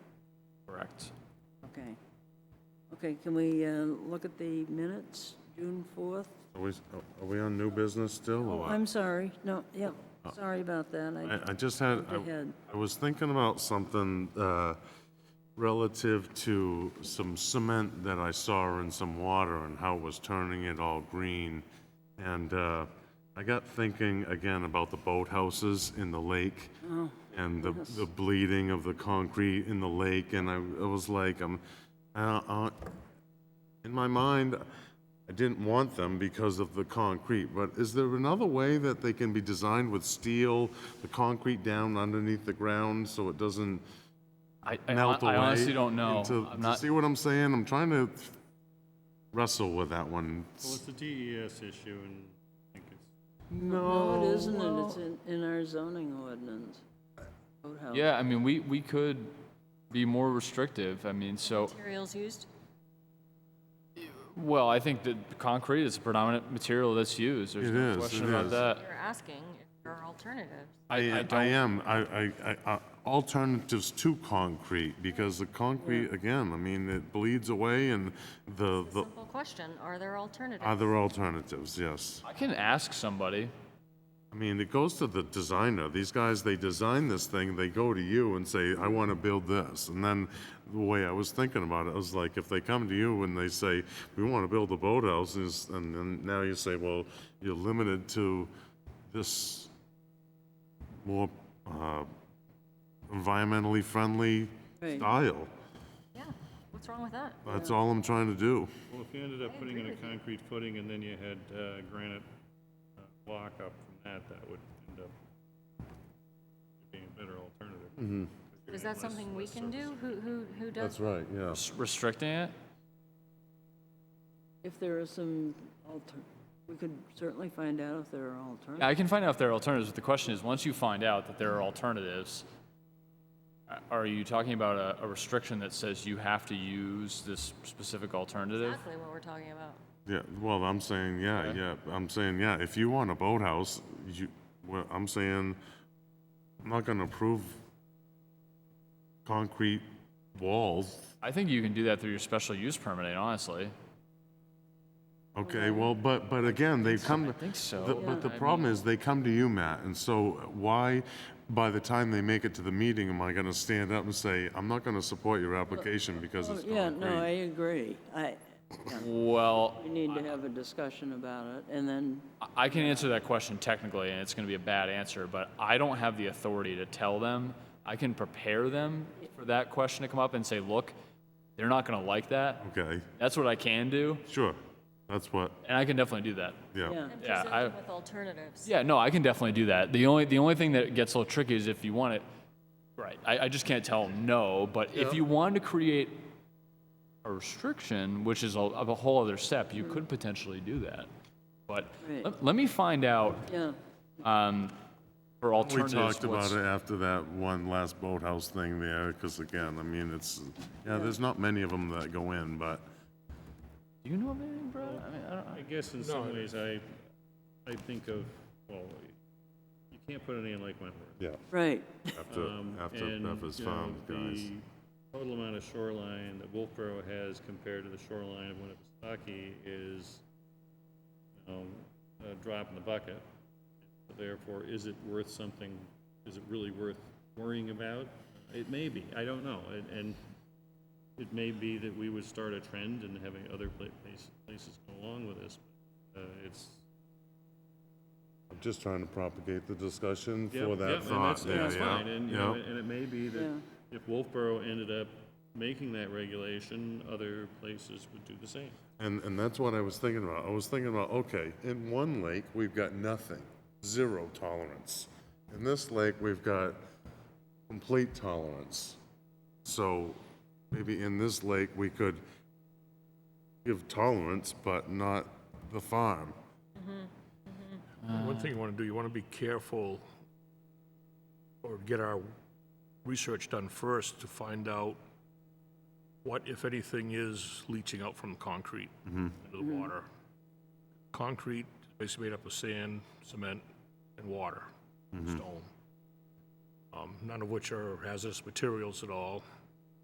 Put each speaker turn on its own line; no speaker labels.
Correct.
Okay. Okay, can we uh, look at the minutes, June 4th?
Are we, are we on new business still, or what?
I'm sorry, no, yep, sorry about that. Oh. I-
I, I just had,
Go ahead.
I, I was thinking about something, uh, relative to some cement that I saw in some water and how it was turning it all green. And, uh, I got thinking again about the boathouses in the lake
Oh,
and the, the bleeding of the concrete in the lake. And I, I was like, I'm, uh, I, I, in my mind, I didn't want them because of the concrete, but is there another way that they can be designed with steel, the concrete down underneath the ground so it doesn't
I, I hon-
melt away?
I honestly don't know.
into-
I'm not,
See what I'm saying? I'm trying to wrestle with that one.
Well, it's a DES issue, and I think it's
No, it isn't, and it's in, in our zoning ordinance. Boathouse.
yeah, I mean, we, we could be more restrictive. I mean, so,
Materials used?
well, I think that concrete is the predominant material that's used. There's
It
no
is,
question
it
about
is.
that.
You're asking if there are alternatives.
I
I, I
don't-
am, I, I, I- I, alternatives to concrete because the concrete, again, I mean, it bleeds away and the, the,
Simple question, are there alternatives?
are there alternatives? Yes.
I can ask somebody.
I mean, it goes to the designer. These guys, they design this thing, they go to you and say, I want to build this. And then the way I was thinking about it, I was like, if they come to you and they say, we want to build a boathouse, is- and then now you say, well, you're limited to this more uh, environmentally friendly
Right.
style.
Yeah, what's wrong with that?
That's all I'm trying to do.
Well, if you ended up putting in a concrete footing and then you had uh, granite uh, block up from that, that would end up being a better alternative.
Is that something we can do? Who, who, who does?
right, yeah.
S- Restricting it?
If there are some alter, we could certainly find out if there are alternatives.
I can find out if there are alternatives, but the question is, once you find out that there are alternatives, a- are you talking about a, a restriction that says you have to use this specific alternative?
Exactly what we're talking about.
Yeah, well, I'm saying, yeah, yeah, I'm saying, yeah, if you want a boathouse, you, well, I'm saying, I'm not gonna approve concrete walls.
I think you can do that through your special use permit, honestly.
Okay, well, but, but again, they come.
I think so.
the- But the problem is, they come to you, Matt, and so why, by the time they make it to the meeting, am I gonna stand up and say, I'm not gonna support your application because
Oh,
it's
Yeah, no, I
concrete?
agree. I,
Well,
we need to have a discussion about it, and then,
I- I can answer that question technically, and it's going to be a bad answer, but I don't have the authority to tell them. I can prepare them for that question to come up and say, look, they're not going to like that.
Okay,
That's what I can do,
sure, that's what,
and I can definitely do that.
yeah,
yeah.
And
Yeah, I-
presenting with alternatives.
Yeah, no, I can definitely do that. The only the only thing that gets a little tricky is if you want it. Right, I, I just can't tell them no. But if you wanted to create a restriction, which is a, of a whole other step, you could potentially do that. But
Right.
let, let me find out
Yeah,
um, for
We
alternatives.
talked about
what's-
it after that one last boathouse thing there, because again, I mean, it's, yeah, there's not many of them that go in, but
Do you know of anything, Brad? I mean, I don't.
I guess in some ways, I, I think of, well, you can't put any in Lake Wentworth.
right,
after,
Um,
after
and,
Bevis
you know,
Farm, guys.
The total amount of shoreline that Wolfboro has compared to the shoreline of Winnipesaukee is, you know, a drop in the bucket. Therefore, is it worth something, is it really worth worrying about? It may be, I don't know, and, and it may be that we would start a trend and having other pla- place- places go along with this. Uh, it's,
I'm just trying to propagate the discussion
Yeah,
for
yeah,
that
and
thought
that's- and
there,
that's
yeah.
fine, And, you know,
yeah.
and it may be that
Yeah.
if Wolfboro ended up making that regulation, other places would do the same.
And, and that's what I was thinking about. I was thinking about, okay, in one lake, we've got nothing, zero tolerance. In this lake, we've got complete tolerance. So maybe in this lake, we could give tolerance, but not the farm.
One thing you want to do, you want to be careful or get our research done first to find out what, if anything, is leaching out from the concrete into the water. Concrete is basically made up of sand, cement, and water, stone. Um, None of which are hazardous materials at all.